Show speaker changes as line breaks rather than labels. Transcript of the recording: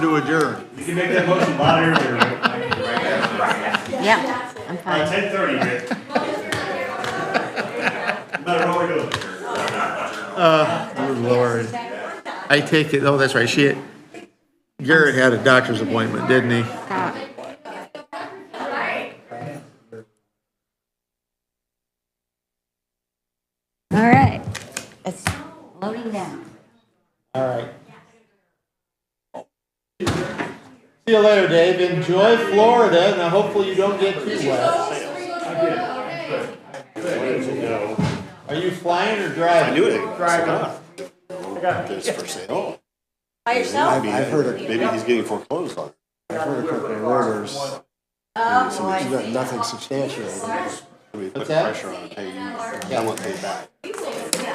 To adjourn.
You can make that motion a lot earlier, right?
Yeah, I'm
By
fine.
ten thirty, Rick. No matter what we do.
Good Lord. I take it, oh, that's right, she, Garrett had a doctor's appointment, didn't he?
Stop. All right, it's loading down.
All right. See you later, Dave. Enjoy Florida. Now, hopefully you don't get too wet. Are you flying or driving?
knew it. Drive There's for sale.
By yourself?
Maybe, maybe he's getting foreclosed on.
I've heard a couple of orders,
Oh,
but nothing substantiated.
We put
What's that?
pressure on, hey, you, I want to pay back.